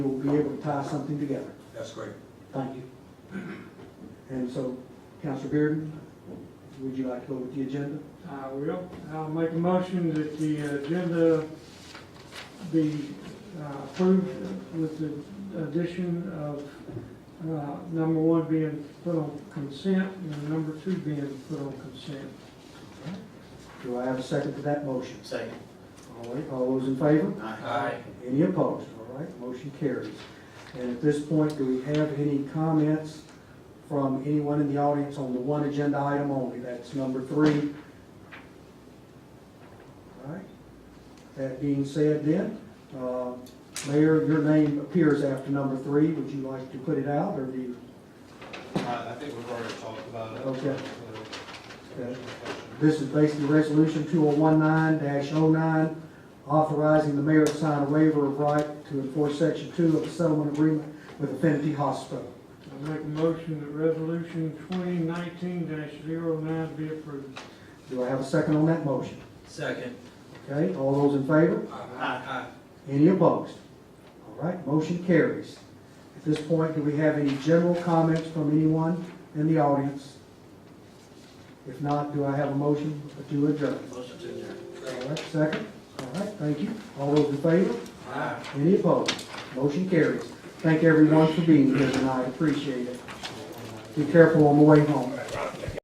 we'll be able to tie something together. That's great. Thank you. And so, Counselor Bearden, would you like to go with the agenda? I will. Uh, I'll make a motion that the agenda be uh, approved with the addition of uh, number one being put on consent and number two being put on consent. Do I have a second to that motion? Second. All right, all those in favor? Aye. Any opposed? All right, motion carries. And at this point, do we have any comments from anyone in the audience on the one agenda item only? That's number three. All right. That being said then, uh, Mayor, your name appears after number three. Would you like to put it out or do you? I I think we've already talked about it. Okay. Okay. This is basically Resolution 2019-09, authorizing the mayor to sign a waiver of right to enforce Section 2 of the settlement agreement with Affinity Hospital. I'll make a motion that resolution twenty nineteen 9 be approved. Do I have a second on that motion? Second. Okay, all those in favor? Aye. Any opposed? All right, motion carries. At this point, do we have any general comments from anyone in the audience? If not, do I have a motion to adjourn? Motion to adjourn. All right, second? All right, thank you. All those in favor? Aye. Any opposed? Motion carries. Thank everyone for being here tonight, appreciate it. Be careful on the way home.